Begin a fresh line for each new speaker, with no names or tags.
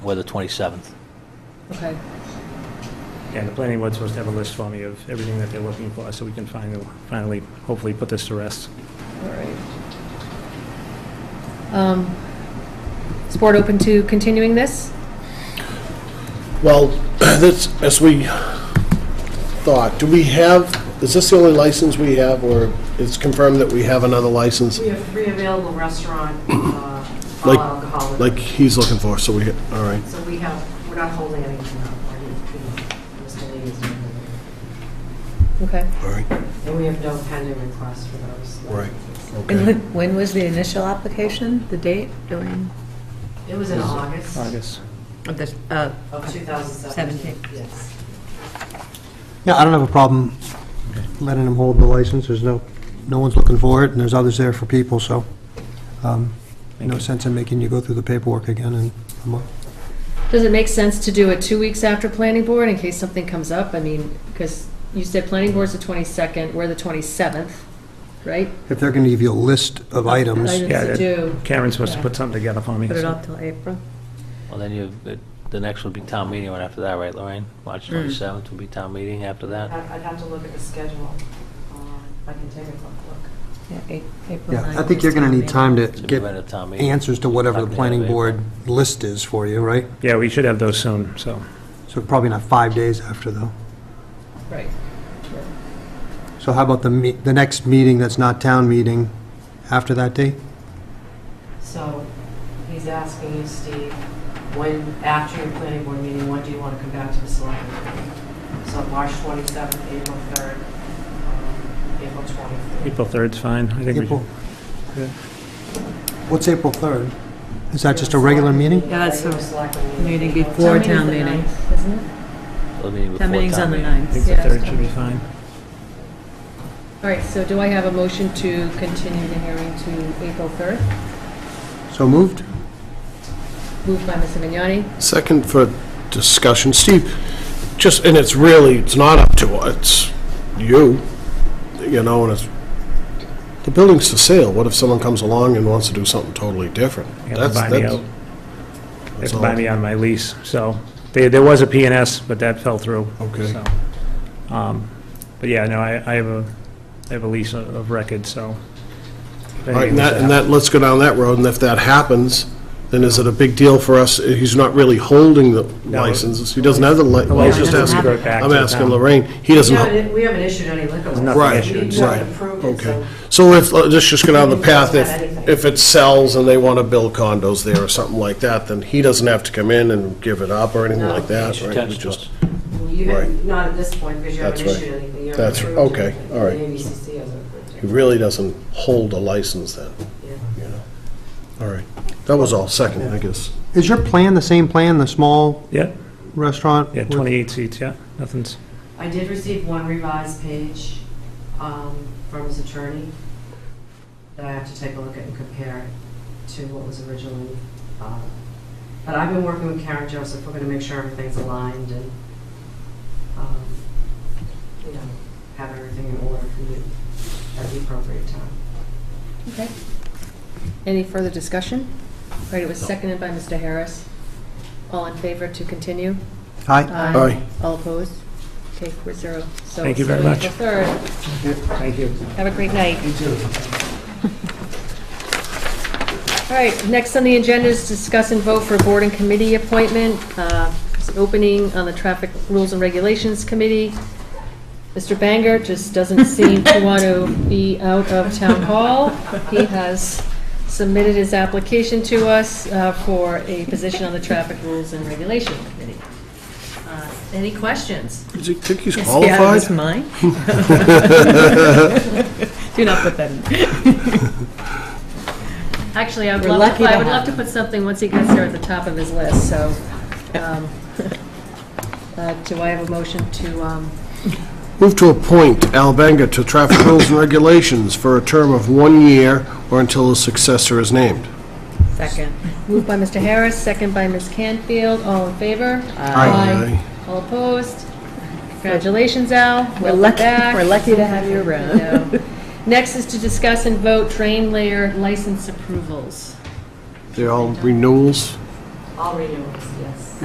or the 27th.
Okay,
And the planning board's supposed to have a list for me of everything that they're looking for, so we can finally, finally, hopefully put this to rest.
all right. Um, Is board open to continuing this?
Well, that's, as we thought, do we have, is this the only license we have, or it's confirmed that we have another license
We have three available restaurant, uh, all
Like-
alcoholic.
like he's looking for, so we, all right.
So we have, we're not holding anything up, we're just treating Mr. Lee as a member.
Okay.
All right,
And we have no pending requests for those.
Right.
And
okay.
when- when was the initial application, the date, during?
It was in August
August.
Of the, uh,
of 2017.
Seventeen.
Yes.
Yeah, I don't have a problem letting them hold the license, there's no, no one's looking for it, and there's others there for people, so, um, no sense in making you go through the paperwork again in a month.
Does it make sense to do it two weeks after planning board in case something comes up? I mean, because you said planning board's the 22nd, we're the 27th, right?
If they're gonna give you a list of items,
Items
Yeah,
to
that-
do.
Karen's supposed to
Yeah.
put something together for me.
put it
so-
off till April?
Well, then you, the- the next would be town meeting right after that, right, Lorraine? March
Mm.
27th would be town meeting after
I'd
that.
I'd have to look at the schedule. Um, I can take a quick look.
Yeah, A- April
yeah, I
9th
think
is
you're gonna
town
need
meeting.
time to
Should be
get
right at town meeting.
answers to whatever the planning board list is for you, right?
Yeah, we should have those soon, so.
So probably not five days after, though.
Right.
So how about the, me- the next meeting that's not town meeting after that date?
So he's asking you, Steve, when, after your planning board meeting, when do you want to come back to the selectmen? So March 27th, April 3rd, um, April 24th.
April 3rd's fine, I think we
April?
should. Yeah.
What's April 3rd? Is that just a regular meeting?
Yeah, that's
Regular
a
selectmen
meeting
Town
before
meeting's
town
the
meeting.
9th, Isn't it?
Town meeting before
Town meeting's on the
meeting.
9th.
I think the
Yeah,
3rd should be fine.
All right, so do I have a motion to continue the hearing to April 3rd?
So moved?
Moved by Mr. Vignani,
Second for discussion, Steve, just, and it's really, it's not up to us, it's you, you know, and it's, the building's for sale, what if someone comes along and wants to do something totally different?
They have
That's
to buy me
that's-
out. They have
that's
to buy
all.
me on my lease, so. There, there was a P and S, but that fell through.
Okay.
so. Um, But yeah, no, I, I have a, I have a lease of of record, so. if
All
anything
right, and that,
was
and
to
that, let's go down that road, and if that happens, then is it a big deal for us? He's not really holding the
No.
license, he doesn't have the li,
happen- The
I was
license
just
doesn't
has to go
asking,
back to
I'm
the
asking
town.
Lorraine, he doesn't,
We
ho-
haven't, we haven't issued any liquor license.
nothing
Right,
We
issued,
haven't
so-
approved it,
okay.
so-
So if, uh, let's just go down the path,
Anything.
if, if it sells and they want to build condos there or something like that, then he doesn't have to come in and give it up or anything
No.
like that,
It's
right? We
attached to
just-
You
Right.
haven't, not at this point, because you haven't
That's right.
issued anything. You
That's
haven't
right.
approved
Okay.
anything.
All right.
The ABCC hasn't approved
He
it.
really doesn't hold a license then,
Yeah.
you know? All right, that was all, second, I guess.
Is your plan the same plan, the small
Yeah,
restaurant?
yeah,
with-
28 seats, yeah, nothing's.
I did receive one revised page um, from his attorney that I have to take a look at and compare it to what was originally. uh, But I've been working with Karen Joseph, we're going to make sure everything's aligned and, um, you know, have everything in order for you at the appropriate time.
okay? Any further discussion? All right, it was seconded by Mr. Harris. All in favor to continue?
Aye.
Aye.
All opposed? Okay, four zero. So
Thank you very
it's
much.
April 3rd.
Thank you.
Have a great night. You too. All right, next on the agenda is discuss and vote for board and committee appointment. Uh, It's an opening on the Traffic Rules and Regulations Committee. Mr. Banger just doesn't seem to want to be out of town hall. He has submitted his application to us uh, for a position on the Traffic Rules and Regulation Committee. Uh, Any questions?
Do you think he's
Yeah, it was
qualified?
mine. Do not put that in.
Actually, I would
We're
love
lucky
to, I
to
would love
have
to put something, once he gets there, at the top of his list, so. um, uh, Do I have a motion to, um,
Move to appoint Al Banger to Traffic Rules and Regulations for a term of one year or until his successor is named.
Second.
moved by Mr. Harris, second by Ms. Canfield, all in favor?
Aye.
All opposed? Congratulations, Al.
We're
Welcome
lucky,
back.
we're lucky to have you
I
around.
know. Next is to discuss and vote train layer license approvals.
They're all renewals?
All renewals, yes.